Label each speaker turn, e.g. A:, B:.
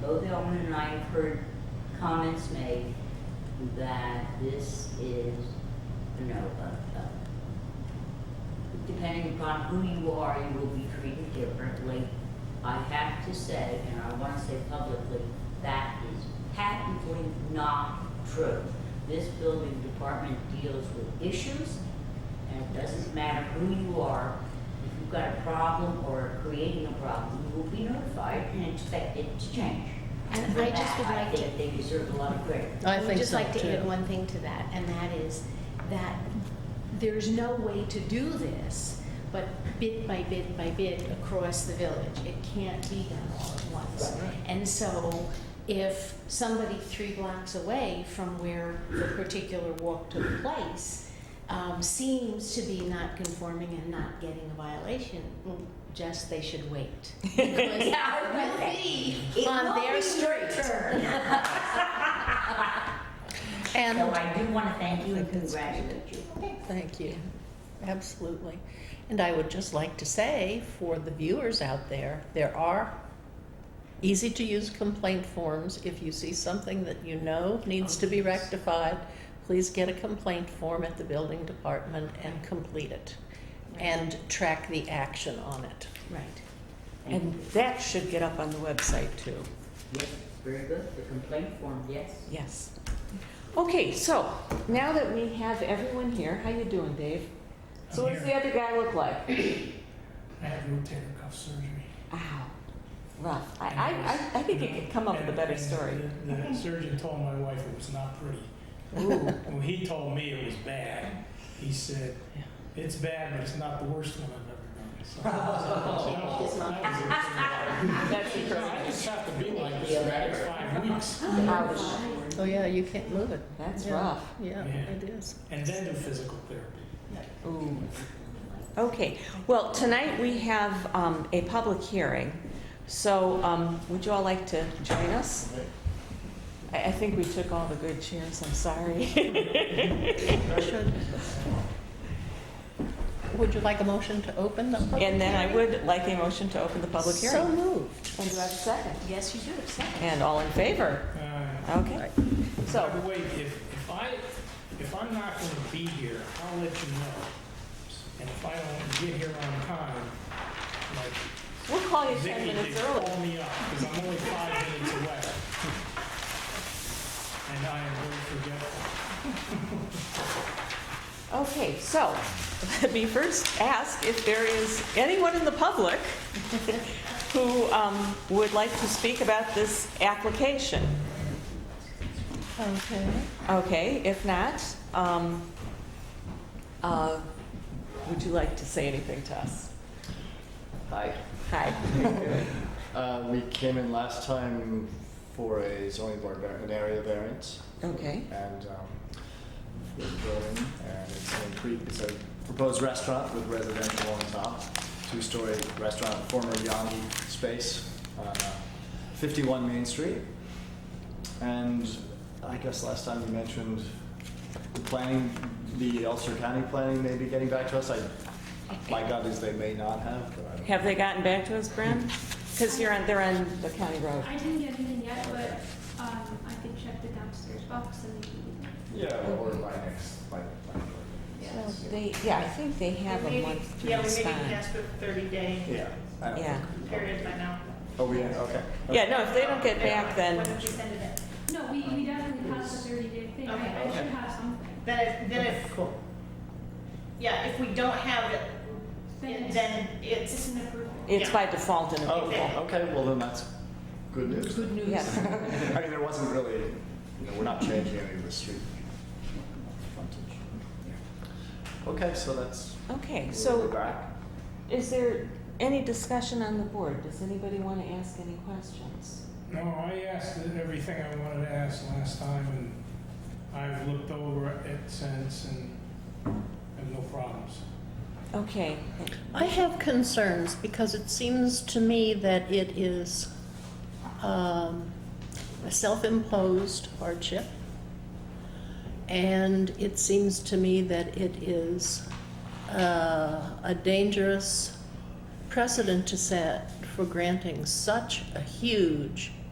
A: both Elmer and I have heard comments made that this is, you know, uh, uh, depending upon who you are, you will be treated differently. I have to say, and I want to say publicly, that is patently not true. This building department deals with issues, and it doesn't matter who you are. If you've got a problem or are creating a problem, you will be notified and expected to change.
B: And
A: For
B: I just
A: that,
B: would like to-
A: I think they deserve a lot of credit.
C: I
B: would
C: think
B: just
C: so
B: like to add
C: too.
B: one thing to that, and that is that there's no way to do this, but bit by bit by bit across the village. It can't be done all at once.
A: Right.
B: And so if somebody three blocks away from where the particular walk took place um, seems to be not conforming and not getting a violation, well, just they should wait. Because
A: Yeah,
B: it will be
A: It
B: on
A: will
B: their
A: be your
B: street.
A: turn. So
C: And,
A: I do want to thank you and
C: Think that's great.
A: congratulate you.
C: thank you, absolutely. And I would just like to say for the viewers out there, there are easy-to-use complaint forms. If you see something that you know needs to be rectified, please get a complaint form at the building department and complete it. And track the action on it.
B: Right.
A: Thank
D: And
A: you.
D: that should get up on the website too.
A: Yes, very good. The complaint form, yes.
D: Yes. Okay, so now that we have everyone here, how you doing, Dave? So
E: I'm
D: what does the other guy look like?
E: I had rotator cuff surgery.
D: Ow, rough. I, I, I- I think it could come up with a better
E: And-
D: story.
E: and The the surgeon told my wife it was not pretty.
D: Ooh,
E: When he told me it was bad, he said, it's bad, but it's not the worst one I've ever done. So I was like, "No, that
D: that's
E: was- No, I
D: encouraging.
E: just have to be like this for the next five weeks.
D: Ouch,
C: Oh, yeah, you can't move it.
D: that's
C: Yeah.
D: rough.
C: Yeah,
E: Yeah.
C: it is.
E: And then do physical therapy.
D: Ooh. Okay, well, tonight we have um, a public hearing, so um, would you all like to join us? I, I think we took all the good chairs, I'm sorry.
C: Should- Would you like a motion to open the public
D: And then I would like a motion to open the public
C: hearing? So
D: hearing.
C: moved.
D: And do I have a second?
B: Yes, you do, second.
D: And all in favor?
E: Uh,
D: Okay,
E: By
D: so,
E: the way, if, if I, if I'm not going to be here, I'll let you know. And if I don't get here on time, like
D: we'll call you 10
E: Vicky did
D: minutes early.
E: call me up, because I'm only five minutes away. And I am very forgetful.
D: Okay, so, let me first ask if there is anyone in the public who um, would like to speak about this application.
C: Okay.
D: Okay, if not, um, uh, would you like to say anything to us?
F: Hi.
D: Hi.
F: Uh, we came in last time for a zoning board, var- an area variance.
D: Okay.
F: And, um, for the building, and it's an incre, it's a proposed restaurant with residential on top, two-story restaurant, former Yanni space, on uh, fifty-one Main Street. And I guess last time you mentioned the planning, the Ulster County planning may be getting back to us. I, my gut is they may not have, but I don't know.
D: Have they gotten back to us, Bren? Because you're on, they're on the county road.
G: I didn't get anything yet, but um, I could check the downstairs box and maybe.
F: Yeah, or by next, by, by.
A: Yes.
D: They, yeah, I think they have a
H: Maybe-
D: month to
H: Yeah, we maybe
D: respond.
H: can ask for thirty day
F: Yeah. I don't
D: Yeah.
F: think-
H: period by now.
F: Oh, we, okay.
D: Yeah, no, if they don't get
H: When
D: back, then,
H: did you send it in?
G: No, we, we definitely passed the thirty day thing. I, I
H: Okay.
G: should have something.
H: Then if, then if. Cool. Yeah, if we don't have it,
G: Then it's,
H: then
G: it's
H: it's,
G: an approval.
D: it's by default in a,
F: Oh, well, okay, well then that's good news.
A: Good news.
D: yes.
F: I mean, there wasn't really, you know, we're not changing any of the street frontage. Okay, so that's,
D: Okay,
F: we're
D: so
F: back.
D: is there any discussion on the board? Does anybody want to ask any questions?
E: No, I asked everything I wanted to ask last time, and I've looked over it since and have no problems.
D: Okay,
C: I have concerns because it seems to me that it is um, a self-imposed hardship. And it seems to me that it is uh, a dangerous precedent to set for granting such a huge